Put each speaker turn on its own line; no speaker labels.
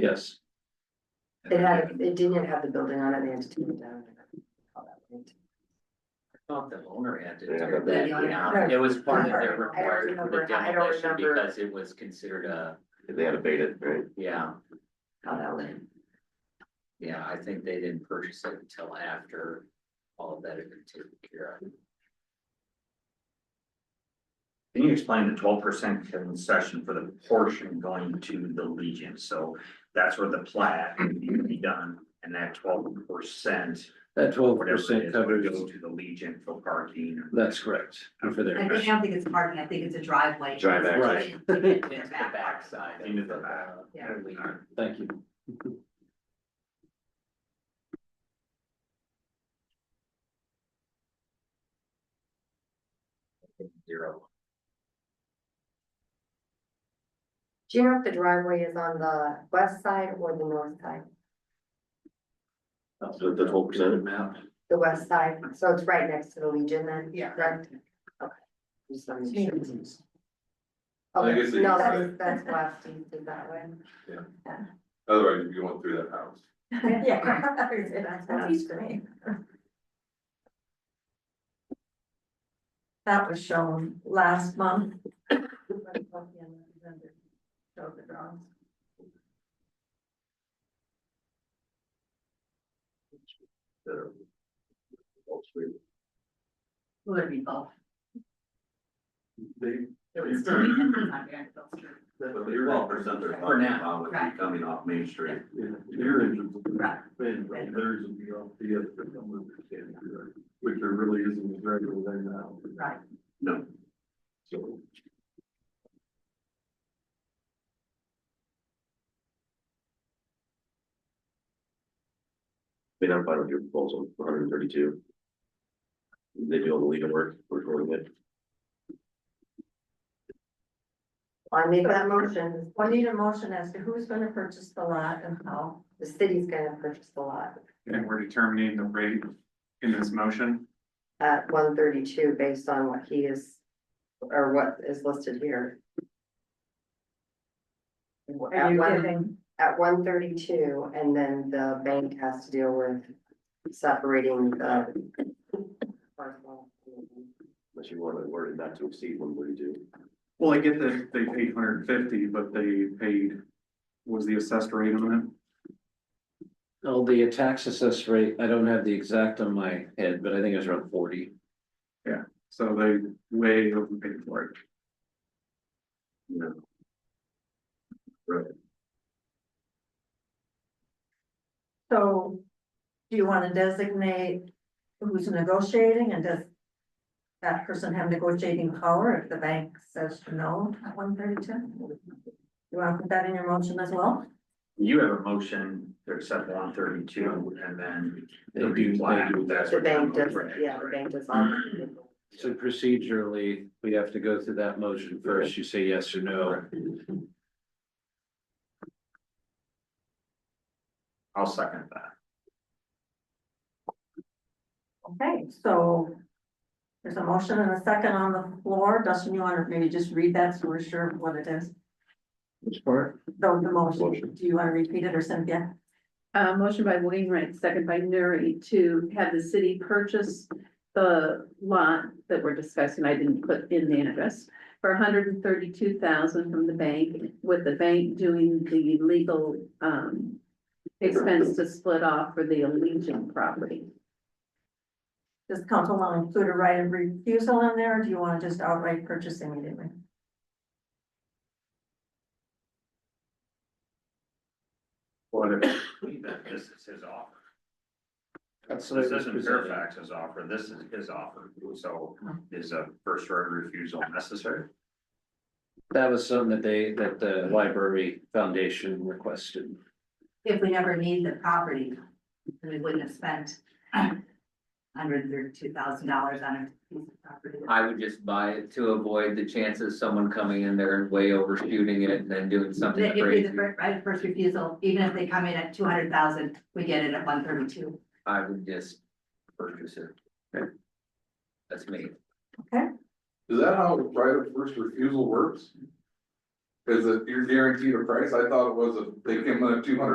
Yes.
It had, it didn't have the building on it, they had to take it down.
Thought the owner had to
Yeah,
tear
but
that
they-
down,
Right.
it was part of
Right. I
their
don't
required for the
remember. I don't
demolition
remember.
because it was considered a,
They had abated, right?
yeah,
How that went.
yeah, I think they didn't purchase it until after all of that had been taken care of.
Can you explain the twelve percent concession for the portion going to the Legion? So that's where the plat needs to be done. And that twelve percent,
That twelve
whatever it
percent
is, would go
covers,
to the Legion for parking. or-
that's correct, and for
I
their,
think, I don't think it's parking, I think it's a driveway.
Drive access.
Right.
It's
Into the
back.
backside. of
Into the back.
Yeah.
Legion.
thank you.
Zero.
Do you know if the driveway is on the west side or the north side?
So the 12%?
Map.
The west side, so it's right next to the Legion then?
Yeah.
Correct? Okay. Just wanna make sure.
I
Okay,
guess the
no,
east
that's, that's west, east is that way.
Otherwise, you'd be going through that house.
Yeah.
That's what it's doing.
That was shown last month. Would it be both?
They,
It would still be different on Granville Street.
but the twelve percent they're
For
talking
now.
about would be
Right.
coming off Main Street.
Right.
And theirs would be off the other, which there really isn't a regular there now.
Right.
No,
So
they don't find your proposal, one hundred and thirty-two. They do all the legal work, recording it.
I make that motion,
I need a motion as to who's gonna purchase the lot and how.
the city's gonna purchase the lot
And we're determining the rate in this motion.
at one thirty-two based on what he is, or what is listed here. At one- at one thirty-two, and then the bank has to deal with separating the. parcel.
Unless you want it worded not to exceed one thirty-two.
Well, I get that they paid hundred and fifty, but they paid, was the assessed rate on
Oh, the tax assess rate, I don't have the exact on my head, but I think it's around forty.
it, so they way overpaid for it.
So, do you wanna designate who's negotiating and does that person have negotiating power if the bank says no at one thirty-two? You wanna put that in your motion as well?
You have a motion to accept one thirty-two and then
They
the
do- they do.
replat. That's
The
what
bank
that
does,
motion is,
yeah, the
right?
bank does all. the-
So procedurally, we have to go through that motion first, you say yes or no.
I'll second that.
Okay, so there's a motion and a second on the floor. Dustin, you wanna maybe just read that so we're sure of what it is?
Which part?
The, the motion,
Motion.
do you wanna repeat it or Cynthia?
Uh, motion by Wainwright, second by Nuri to have the city purchase the lot that we're discussing. I didn't put in the address. For hundred and thirty-two thousand from the bank, with the bank doing the legal, um, expense to split off for the Allegiant property.
Does council want to include a right of refusal in there, or do you wanna just outright purchase immediately?
What if, leave that, this is his offer.
That's what I
This
was
isn't
presenting.
Fairfax's offer, this is his offer, so is a first right of refusal necessary?
That was something that they, that the library foundation requested.
if we never need the property, then we wouldn't have spent hundred and thirty-two thousand dollars on a piece of property.
I would just buy it to avoid the chances of someone coming in there and way overshooting it and then doing something
That give you
crazy.
the first, right, first refusal, even if they come in at two hundred thousand, we get it at one thirty-two.
I would just purchase it. That's me.
Is that how right of first refusal works?
Is it, you're guaranteed a price? I thought it was, a they came in at two hundred